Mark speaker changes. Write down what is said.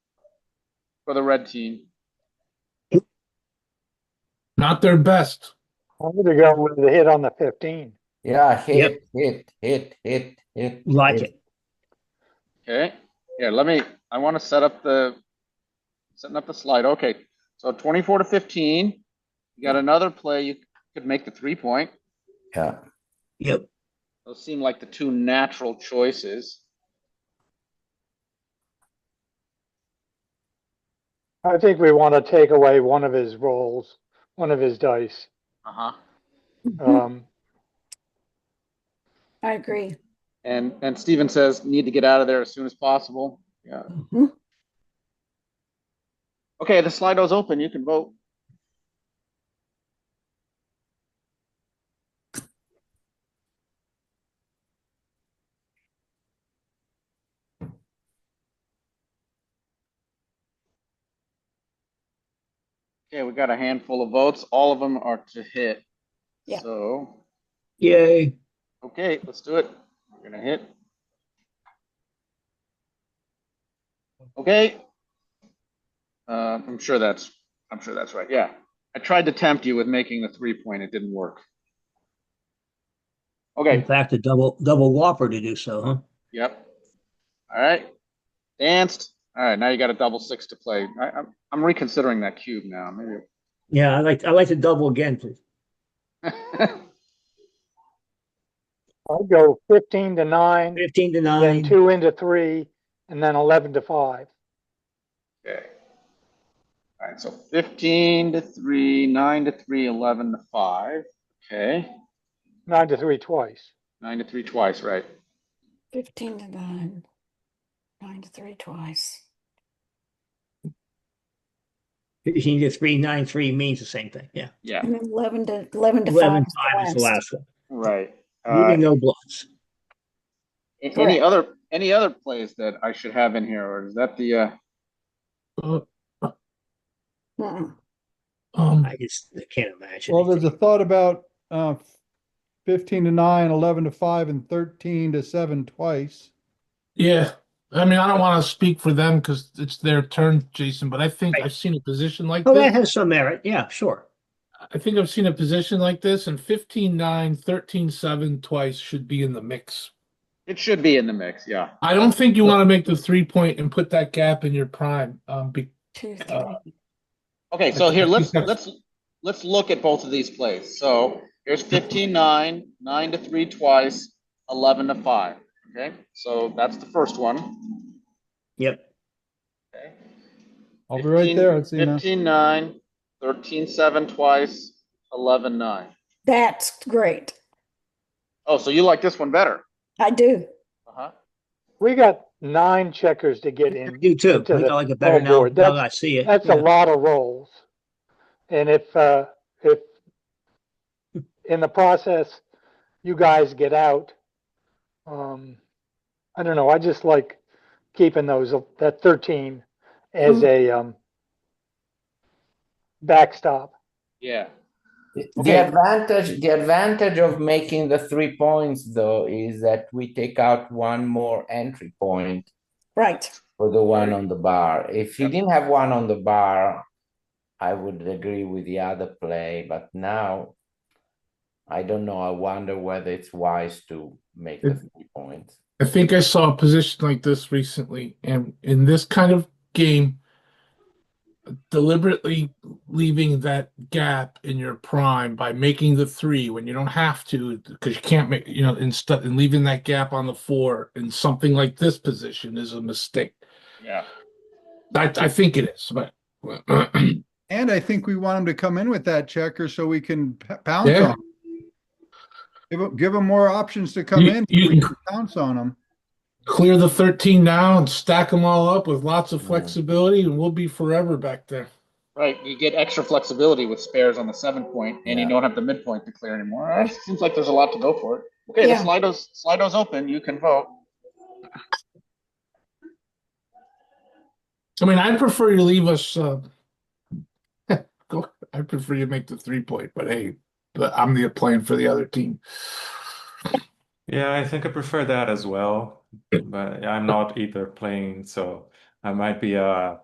Speaker 1: for the red team.
Speaker 2: Not their best.
Speaker 3: I'm gonna go with the hit on the fifteen.
Speaker 4: Yeah, hit, hit, hit, hit, hit.
Speaker 5: Like
Speaker 4: hit.
Speaker 5: it.
Speaker 1: Okay, here, let me, I want to set up the, setting up the slide. Okay, so twenty-four to fifteen. You got another play, you could make the three point.
Speaker 4: Yeah,
Speaker 5: Yep.
Speaker 1: Those seem like the two natural choices.
Speaker 3: I think we want to take away one of his rolls, one of his dice.
Speaker 1: Uh-huh.
Speaker 3: Um,
Speaker 6: I agree.
Speaker 1: And, and Steven says, need to get out of there as soon as possible. Yeah.
Speaker 6: Mhm.
Speaker 1: Okay, the Slido's open, you can vote. Okay, we got a handful of votes, all of them are to hit.
Speaker 6: Yeah.
Speaker 1: So,
Speaker 5: Yay.
Speaker 1: okay, let's do it, we're gonna hit. Okay. Uh, I'm sure that's, I'm sure that's right, yeah. I tried to tempt you with making the three point, it didn't work.
Speaker 5: In
Speaker 1: Okay,
Speaker 5: fact, a double, double whopper to do so, huh?
Speaker 1: yep. All right, danced, all right, now you got a double six to play. I, I'm, I'm reconsidering that cube now, maybe.
Speaker 5: Yeah, I like, I like to double again, please.
Speaker 3: I'd go fifteen to nine,
Speaker 5: Fifteen to
Speaker 3: then
Speaker 5: nine.
Speaker 3: two into three, and then eleven to five.
Speaker 1: Okay. All right, so fifteen to three, nine to three, eleven to five, okay,
Speaker 3: Nine to three twice.
Speaker 1: nine to three twice, right?
Speaker 6: Fifteen to nine. Nine to three twice.
Speaker 5: Fifteen to three, nine, three means the same thing, yeah.
Speaker 1: Yeah,
Speaker 6: And then eleven to, eleven to
Speaker 5: Eleven,
Speaker 6: five. is
Speaker 5: five is the last one.
Speaker 1: right. Uh,
Speaker 5: Leaving no bluffs.
Speaker 1: a- any
Speaker 6: Correct.
Speaker 1: other, any other plays that I should have in here, or is that the, uh,
Speaker 2: Uh,
Speaker 6: Mm-mm.
Speaker 2: um,
Speaker 5: I just I can't imagine.
Speaker 7: Well, there's a
Speaker 5: anything.
Speaker 7: thought about, uh, fifteen to nine, eleven to five, and thirteen to seven twice.
Speaker 2: yeah. I mean, I don't want to speak for them because it's their turn, Jason, but I think
Speaker 5: Right.
Speaker 2: I've seen a position like
Speaker 5: Oh, that
Speaker 2: this.
Speaker 5: has some merit, yeah, sure.
Speaker 2: I think I've seen a position like this and 15 9, 13 7 twice should be in the mix.
Speaker 1: it should be in the mix, yeah.
Speaker 2: I don't think you want to make the three point and put that gap in your prime. Um, be,
Speaker 6: Two,
Speaker 2: Uh,
Speaker 6: three.
Speaker 1: Okay, so here, let's,
Speaker 2: That's-
Speaker 1: let's, let's look at both of these plays. So here's fifteen, nine, nine to three twice, eleven to five, okay? So that's the first one,
Speaker 5: Yep,
Speaker 1: okay?
Speaker 7: I'll be right there, Athena.
Speaker 1: Fifteen, nine, thirteen, seven twice, eleven, nine.
Speaker 6: That's great.
Speaker 1: Oh, so you like this one better?
Speaker 6: I do.
Speaker 1: Uh-huh.
Speaker 3: We got nine checkers to get
Speaker 5: I
Speaker 3: in.
Speaker 5: do too. I think I like it better now,
Speaker 3: Forward.
Speaker 5: now
Speaker 3: That's-
Speaker 5: that I see it.
Speaker 3: That's
Speaker 5: Yeah.
Speaker 3: a lot of rolls. And if, uh, if in the process, you guys get out, um, I don't know, I just like keeping those, that thirteen
Speaker 5: Mm-hmm.
Speaker 3: as a, um, backstop.
Speaker 1: Yeah.
Speaker 4: The advantage, the advantage of making the three points though is that we take out one more entry point
Speaker 6: Right.
Speaker 4: for the one on the bar. If you didn't have one on the bar, I would agree with the other play, but now I don't know. I wonder whether it's wise to make the three points.
Speaker 2: I think I saw a position like this recently, and in this kind of game, deliberately leaving that gap in your prime by making the three when you don't have to, because you can't make, you know, instead and leaving that gap on the four in something like this position is a mistake.
Speaker 1: Yeah.
Speaker 2: I, I think it is, but
Speaker 7: And I think we want him to come in with that checker so we can p- pounce
Speaker 2: Yeah.
Speaker 7: on. him. Give him, give him more options to come
Speaker 2: You-
Speaker 7: in,
Speaker 2: you
Speaker 7: so we
Speaker 2: can-
Speaker 7: can pounce on him.
Speaker 2: clear the 13 now and stack them all up with lots of flexibility, and we'll be forever back there.
Speaker 1: Right, you get extra flexibility with spares on the seven point, and you
Speaker 4: Yeah.
Speaker 1: don't have the midpoint to clear anymore. All right, seems like there's a lot to go for it. Okay,
Speaker 6: Yeah.
Speaker 1: the Slido's Slido's open. You can vote.
Speaker 2: I mean, I prefer you leave us. Uh, go. I prefer you make the three point, but hey, but I'm the playing for the other team.
Speaker 8: Yeah, I think I prefer that as well, but I'm not either playing, so I might be uh